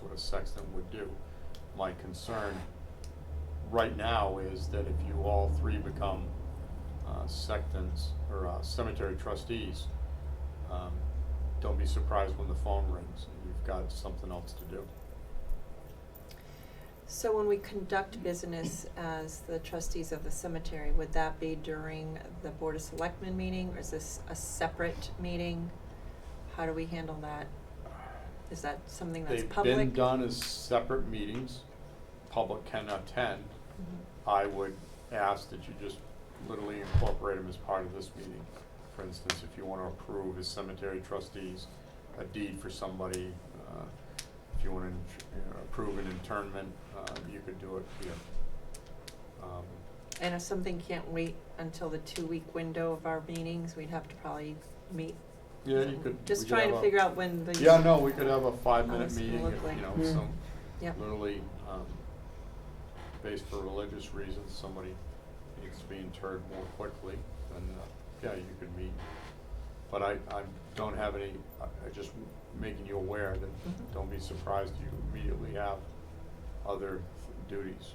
what a sexton would do. My concern right now is that if you all three become uh, sextons or uh, cemetery trustees, um, don't be surprised when the phone rings and you've got something else to do. So when we conduct business as the trustees of the cemetery, would that be during the Board of Selectmen meeting, or is this a separate meeting? How do we handle that? Is that something that's public? They've been done as separate meetings, public can attend. Mhm. I would ask that you just literally incorporate them as part of this meeting. For instance, if you want to approve as cemetery trustees a deed for somebody, uh, if you want to approve an internment, uh, you could do it here. Um, And if something can't wait until the two-week window of our meetings, we'd have to probably meet. Yeah, you could. Just we could trying have to a- figure out when the. Yeah, no, we could have a How five-minute this will meeting, look if, like. you know, Mm. some, Yep. literally, um, based for religious reasons, somebody needs to be interred more quickly, then, uh, yeah, you could meet. But I, I don't have any, I, I just making you aware that, Mhm. don't be surprised you immediately have other duties.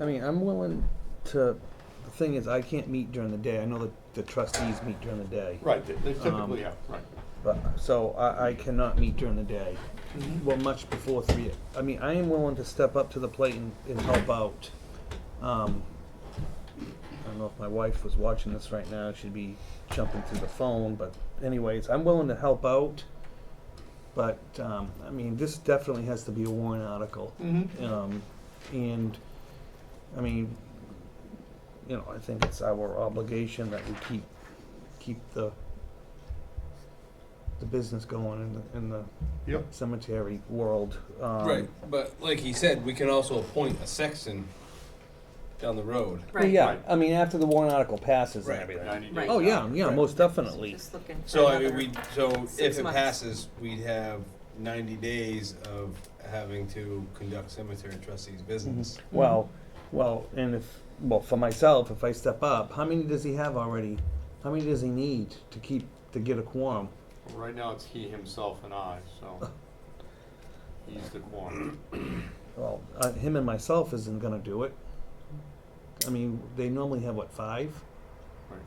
I mean, I'm willing to. The thing is, I can't meet during the day. I know that the trustees meet during the day. Right, they they Um, typically have, right. But so I, I cannot meet during the day. Mhm. Well, much before three. I mean, I am willing to step up to the plate and, and help out. Um, I don't know if my wife was watching this right now. She'd be jumping through the phone. But anyways, I'm willing to help out. But um, I mean, this definitely has to be a warrant article. Mm-hmm. Um, and, I mean, you know, I think it's our obligation that we keep, keep the, the business going in the, in the Yep. cemetery world. Um, Right, but like he said, we can also appoint a sexton down the road. Well, Right. yeah, Right. I mean, after the warrant article passes and Right. everything. Ninety Right. days. Oh, yeah, out. yeah, Right. most definitely. Just looking for So I mean, another- we, so six if it months. passes, we'd have ninety days of having to conduct cemetery trustees' business. Mm-hmm. Well, well, and if, well, for myself, if I step up, how many does he have already? How many does he need to keep, to get a quorum? Right now, it's he, himself, and I, so he's the quorum. Well, uh, him and myself isn't gonna do it. I mean, they normally have what five, Right.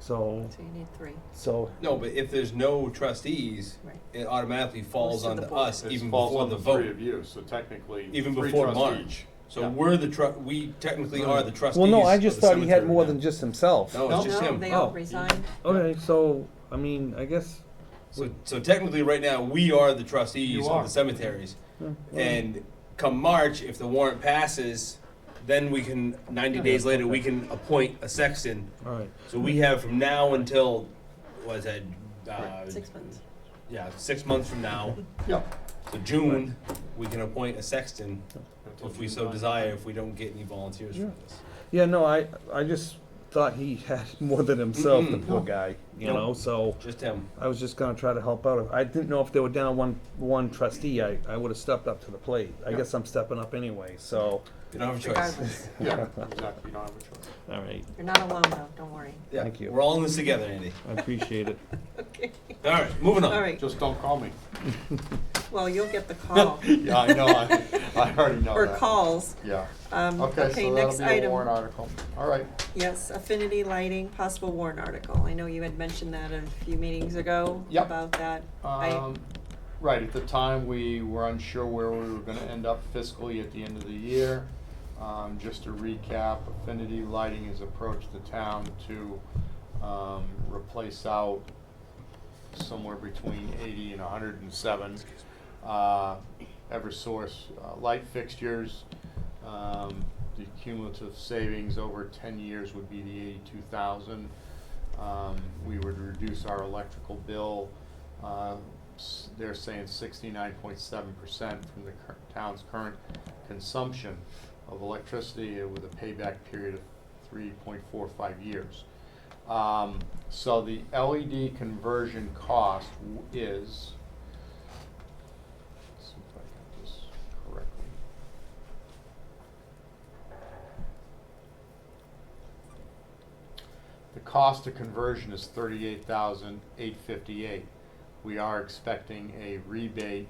so So you need three, so No, but if there's no trustees, right. it automatically Goes falls to the onto board. us It even falls before on the Three vote, of you, so technically. even three before trustees. March. Yeah. So we're the tru, we technically are the trustees. Well, no, I of just the thought he had cemetery more now. than just himself. No, it's just No, him. they all Oh. resigned. Okay, so I mean, I guess So, so technically, right now, we are the trustees You of are. the cemeteries. Yeah. And come March, if the warrant passes, then we can, ninety days later, we can appoint a sexton. all right. So we have from now until, what is that? uh, Six months. Yeah, six months from now, Yeah. so June, we can appoint a sexton if we so desire, if we don't get any volunteers Yeah. for this. Yeah, no, I I just thought he had more than himself, the Mm-mm. poor guy. You No. know, so Just him. I was just gonna try to help out. I didn't know if they were down one one trustee. I I would have stepped up to the plate. I Yeah. guess I'm stepping up anyway. So You don't have a choice. Regardless, Yeah, exactly, you don't have a choice. all right, you're not alone though, don't worry. Yeah, Thank you. We're all in this together, Andy. I appreciate it. Okay, All right, moving on. all right, Just don't call me. well, you'll get the call, Yeah, I know, I, I already know or that. calls. Yeah, Um, okay, okay, so that'll next be a item. warrant article. All right, Yes, affinity lighting, possible warrant article. I know you had mentioned that a few meetings ago Yep. about that. I, um, right, at the time, we were unsure where we were gonna end up fiscally at the end of the year. Um, just to recap, Affinity Lighting has approached the town to, um, replace out somewhere between eighty and hundred and seven, uh, Eversource, uh, light fixtures. Um, the cumulative savings over ten years would be the eighty-two thousand. Um, we would reduce our electrical bill, uh, s- they're saying sixty-nine point seven percent from the cur- town's current consumption of electricity with a payback period of three point four five years. Um, so the LED conversion cost w- is, let's see if I got this correctly. The cost of conversion is thirty-eight thousand eight fifty-eight. We are expecting a rebate